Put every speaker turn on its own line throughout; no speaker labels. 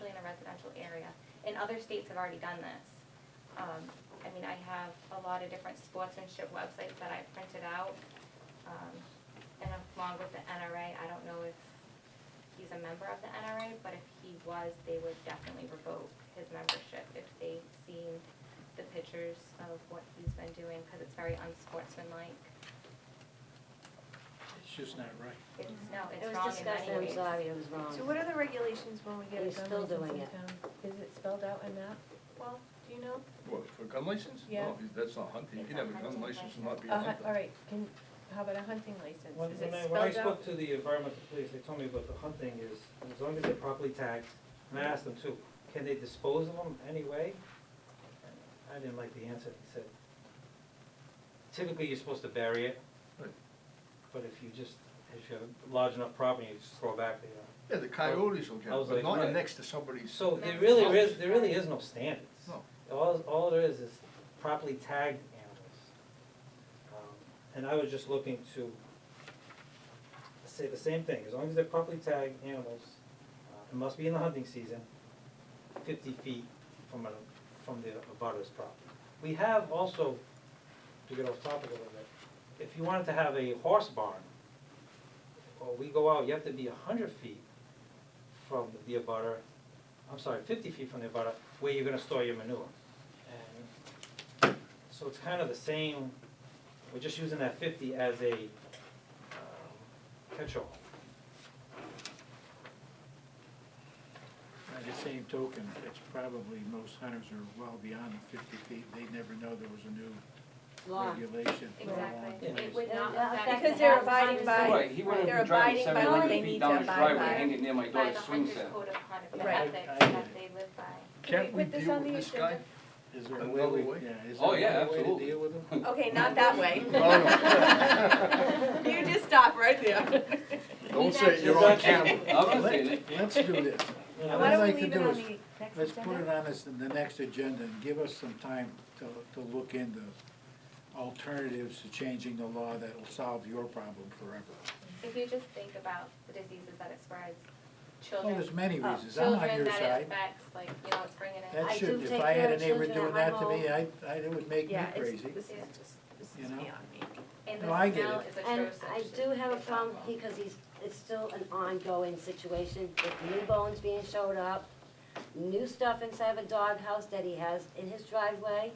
in a residential area. And other states have already done this. Um, I mean, I have a lot of different sportsmanship websites that I printed out, um, and along with the NRA, I don't know if he's a member of the NRA, but if he was, they would definitely revoke his membership if they seen the pictures of what he's been doing, because it's very unsportsmanlike.
It's just not right.
It's, no,
It
it's
was
wrong in
discussed,
many
I'm
ways.
sorry, it was
So what
wrong.
are the regulations when we get
You're
a gun
still
license
doing it.
in town? Is it spelled out in that? Well, do you know?
What, for gun license?
Yeah.
No, that's not hunting, you can have a gun license and not be a
A hun,
hunter.
Uh, all right, can, how about a hunting license?
When,
Is
when
it
I, when I
spelled out?
spoke to the environmental police, they told me about the hunting is, as long as they're properly tagged, and I asked them too, can they dispose of them anyway? I didn't like the answer, he said, typically you're supposed to bury it,
Right.
but if you just, if you have large enough property, you just throw back the, uh.
Yeah, the coyotes will get
I
it,
was
but
like,
not
right.
next to somebody's.
So there
That's
really
Oh.
not-
is, there really is no standards.
No.
All, all there is is properly tagged animals. Um, And I was just looking to say the same thing, as long as they're properly tagged animals, uh, it must be in the hunting season, fifty feet from a, from the abutter's property. We have also, to get off topic a little bit, if you wanted to have a horse barn, or we go out, you have to be hundred feet from the abutter, I'm sorry, fifty feet from the abutter, where you're gonna store your manure. And So it's kind of the same, we're just using that fifty as a um, catch-all.
By the same token, it's probably, most hunters are well beyond the fifty feet, they never know there was a new
Law.
regulation. for a long
Exactly.
time.
It would not
That-
affect.
that-
Because they're abiding by,
Right, he wouldn't
they're
have been driving
abiding by
seven
what
hundred
they
feet
need
down
to
his
abide
driveway,
by.
hanging near my
By
daughter's
the
swing
hunter's
set.
code of conduct, the
Right.
ethics
I- I-
that they live by.
Can't
we
we
put this
deal
on
with
the
this guy?
Is there a
Another
way,
way?
we- yeah, is
Oh,
there
yeah,
another way to
absolutely.
deal with them?
Okay, not that way. You just stop right there.
Don't say
We've
you're on
actually-
camera.
I'm not saying it.
Let's do this.
You know,
What
Why
I'd
don't
like
we
to
leave it
do
on
is,
the next
Let's put it
agenda?
on this, the next agenda and give us some time to, to look into alternatives to changing the law that'll solve your problem forever.
If you just think about the diseases that it spreads,
Well,
children,
there's many
Oh,
reasons, I'm on
children
your
that it
side.
affects, like, you know, it's bringing in.
That
I
should,
do
if
take
I had
care
a
of
neighbor
children
doing
at
that to
my
me, I, I, it would make me
Yeah, it's,
crazy.
this is just, this
You
is
know?
beyond me.
And
No, I
the
get
smell
it.
is atrocious.
And I do have a
It's
problem,
awful.
because he's, it's still an ongoing situation, with new bones being showed up, new stuff inside of a doghouse that he has in his driveway,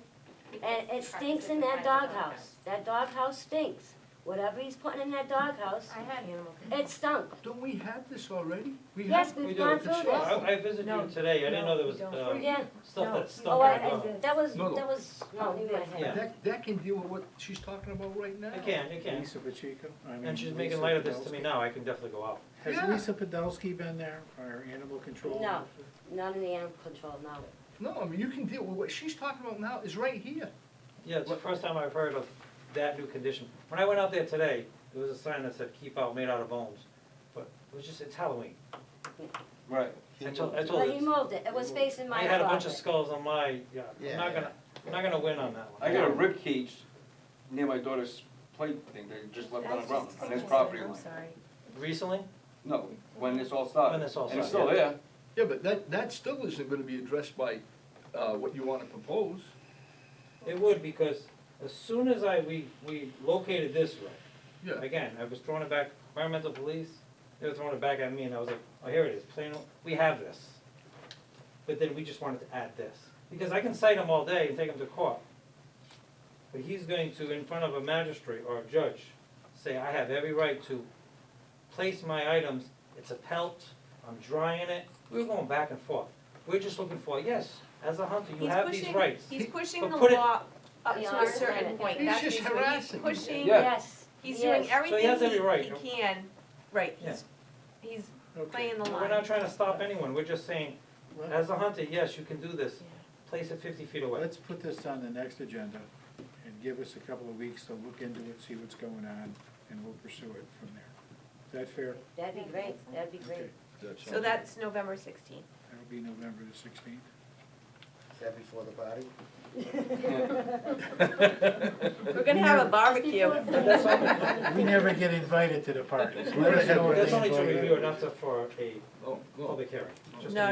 and it
Because
stinks
practices
in that
inside the
doghouse. That doghouse stinks. Whatever he's putting in that doghouse,
I had animal
it stunk.
Don't we have this already? We
Yes,
have-
we
we've
do.
gone through this.
I, I visited
No,
you today, I didn't know there was,
no,
uh,
we
Yeah,
stuff
No.
that
oh, I,
Don't
stuck in the
worry
I,
ground.
about it.
that was,
No, no.
that was, no, in my head.
Yeah.
That, that can deal with what she's talking about right now.
I can, I can,
Lisa Pacheco? I mean,
and she's making
Lisa
light of this to
Podolsky.
me now, I can definitely go out.
Yeah.
Has Lisa Podolsky been there, our animal control?
No.
officer?
not in the animal control, no.
No, I mean, you can deal with what she's talking about now is right here.
Yeah, it's the first time I've heard of that new condition. When I went out there today, there was a sign that said, keep out made out of bones, but it was just, it's Halloween.
Right.
I told, I told
But he
it,
moved it, it was facing
I
my
had a bunch of
closet.
skulls on my, yeah,
Yeah,
I'm not gonna, I'm not gonna win on that one.
I got a rib cage near my daughter's play thing that just left on the ground, on his property
I'm
line.
sorry.
Recently?
No, when this all started.
When this all
And it's still
started,
there.
Yeah, but that, that still isn't gonna be addressed by, uh, what you wanna propose.
It would, because as soon as I, we, we located this road,
Yeah,
again, I was throwing it back, environmental police, they were throwing it back at me, and I was like, oh, here it is, plain, old- we have this. But then we just wanted to add this, because I can cite him all day and take him to court. But he's going to, in front of a magistrate or a judge, say, I have every right to place my items, it's a pelt, I'm drying it, we were going back and forth. We're just looking for, yes, as a hunter, you
He's
have these
pushing-
rights.
He's pushing
but
the
put it-
law up to
Beyond
a certain
limit.
point.
He's
That's
just
basically- he's
harassing you.
Pushing.
Yeah.
Yes,
He's doing
yes.
everything
has every right,
he,
you know?
he can, right, he's, he's
Okay.
playing the
We're
line.
not trying to stop anyone, we're just saying,
Well,
As a hunter, yes, you can do this. Place it fifty feet away.
Let's put this on the next agenda and give us a couple of weeks to look into it, see what's going on, and we'll pursue it from there. Is that fair?
that'd be great, that'd be
Okay,
great.
So that's November sixteenth.
that'll be November the sixteenth.
Is that before the party?
We're gonna have a barbecue.
But that's only,
We never get invited to the parties. Let us know if
that's
they
only to
invite us.
review, not to, for a
Oh, no.
public hearing.
No,